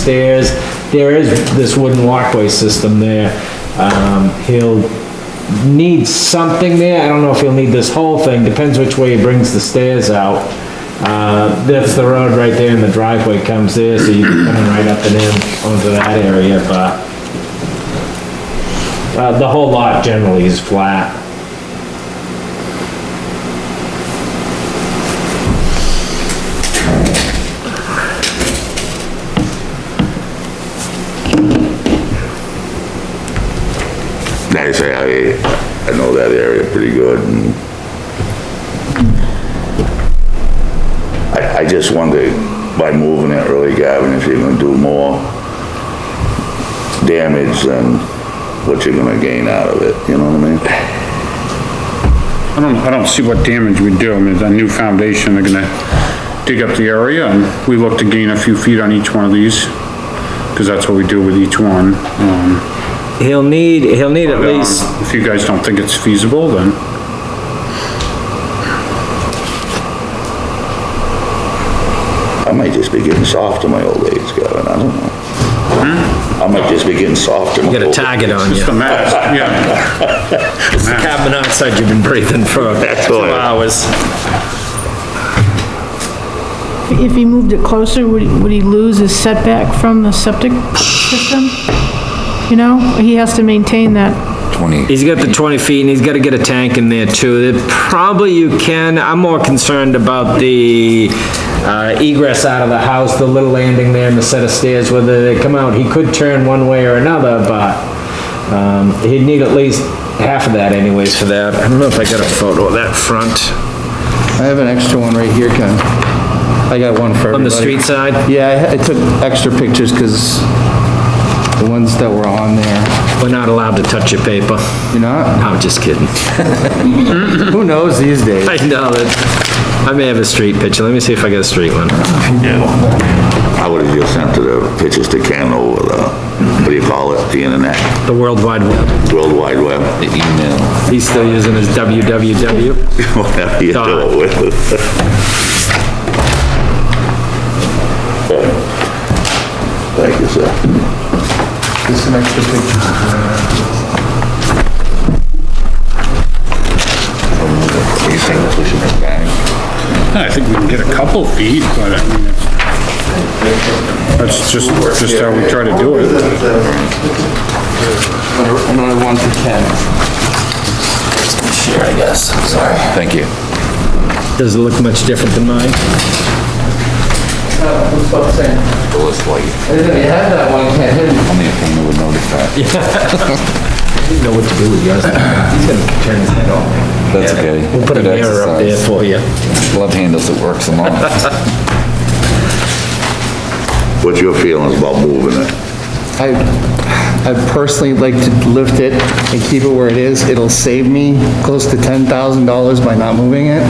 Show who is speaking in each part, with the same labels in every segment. Speaker 1: stairs. There is this wooden walkway system there. Um, he'll need something there. I don't know if he'll need this whole thing, depends which way he brings the stairs out. Uh, that's the road right there and the driveway comes there, so you're coming right up and in onto that area, but uh, the whole lot generally is flat.
Speaker 2: Like I say, I, I know that area pretty good and I, I just wonder, by moving it early, Gavin, if you're gonna do more damage than what you're gonna gain out of it, you know what I mean?
Speaker 3: I don't, I don't see what damage we do. I mean, it's a new foundation, they're gonna dig up the area and we look to gain a few feet on each one of these. Cause that's what we do with each one. Um,
Speaker 1: He'll need, he'll need at least
Speaker 3: if you guys don't think it's feasible, then
Speaker 2: I might just be getting soft in my old age, Gavin, I don't know. I might just be getting soft in my
Speaker 4: Hmm? You
Speaker 2: old.
Speaker 4: got a target on you.
Speaker 3: it's the max, yeah.
Speaker 4: Carbon monoxide you've been breathing for two
Speaker 2: all.
Speaker 4: hours.
Speaker 5: If he moved it closer, would, would he lose his setback from the septic system? You know, he has to maintain that.
Speaker 4: He's got the 20 feet and he's gotta get a tank in there too. That Probably you can, I'm more concerned about the uh, egress out of the house, the little landing there and the set of stairs, whether they come out. He could turn one way or another, but um, he'd need at least half of that anyways for that. I don't know if I got a photo of that front
Speaker 6: I have an extra one right here, Ken. I got one for everybody.
Speaker 4: on the street side.
Speaker 6: Yeah, I I took extra pictures because the ones that were on there,
Speaker 4: We're not allowed to touch your paper.
Speaker 6: you know,
Speaker 4: I'm just kidding.
Speaker 6: who knows these days?
Speaker 4: I know that, I may have a street picture. Let me see if I got a street one.
Speaker 2: I would've just sent the pictures to Ken over the, what do you call it, the internet,
Speaker 4: The World Wide Web.
Speaker 2: World Wide Web. The email.
Speaker 4: He's still using his www.
Speaker 2: whatever you do it with. Thank you, sir.
Speaker 6: Just some extra pictures.
Speaker 2: You think we should make that?
Speaker 3: I think we can get a couple feet, but I mean, it's- that's just, just how we try to do it.
Speaker 6: Another one for Ken.
Speaker 2: Thank you.
Speaker 4: Does it look much different than mine?
Speaker 6: Looks about the same.
Speaker 2: It was like,
Speaker 6: I didn't have that one, Ken, hidden.
Speaker 2: only a painter would notice that.
Speaker 4: You Know what to do with yours. He's gonna turn his head off.
Speaker 7: That's okay.
Speaker 4: We'll put a
Speaker 7: Good
Speaker 4: mirror up there
Speaker 7: exercise.
Speaker 4: for you.
Speaker 7: Left hand doesn't work so long.
Speaker 2: What's your feelings about moving it?
Speaker 6: I, I personally like to lift it and keep it where it is. It'll save me close to ten thousand dollars by not moving it.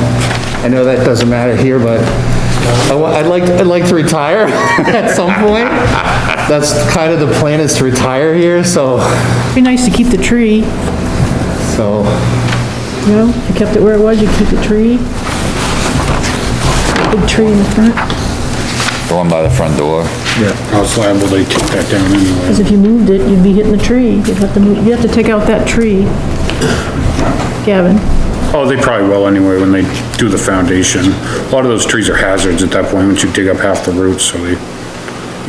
Speaker 6: I know that doesn't matter here, but I wa- I'd like, I'd like to retire at some point. That's kind of the plan is to retire here, so,
Speaker 5: Be nice to keep the tree, you
Speaker 6: so,
Speaker 5: know, if you kept it where it was, you keep the tree. Big tree in the front,
Speaker 7: The one by the front door.
Speaker 3: I was liable they take that down anyway.
Speaker 5: because if you moved it, you'd be hitting the tree, you'd have to move, you'd have to take out that tree. Gavin,
Speaker 3: Oh, they probably will anyway when they do the foundation. A lot of those trees are hazards at that point, once you dig up half the roots, so they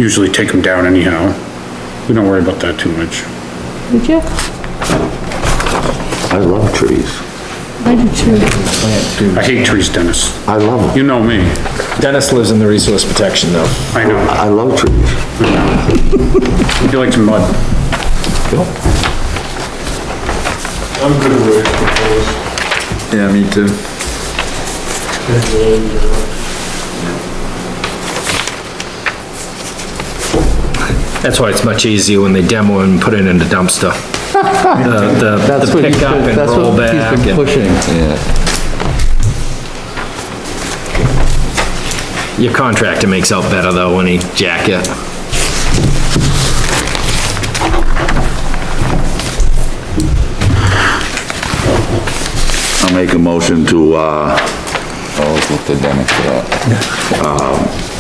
Speaker 3: usually take them down anyhow. We don't worry about that too much.
Speaker 5: did you?
Speaker 2: I love trees.
Speaker 5: I do too.
Speaker 3: I hate trees, Dennis.
Speaker 2: I love
Speaker 3: You know me.
Speaker 4: Dennis lives in the resource protection though.
Speaker 3: I know.
Speaker 2: I love trees.
Speaker 3: You like to mud.
Speaker 8: I'm good with it, because
Speaker 7: Yeah, me too.
Speaker 8: it's, uh,
Speaker 4: That's why it's much easier when they demo and put it in the dumpster. The, the-
Speaker 6: that's
Speaker 4: the
Speaker 6: what he's,
Speaker 4: pickup
Speaker 6: been-
Speaker 4: and
Speaker 6: that's
Speaker 4: roll
Speaker 6: what he's
Speaker 4: back.
Speaker 6: been
Speaker 4: and-
Speaker 6: pushing.
Speaker 7: Yeah.
Speaker 4: Your contractor makes out better though when he jack it.
Speaker 2: I'll make a motion to, uh, uh,
Speaker 7: Always look to Dennis for that.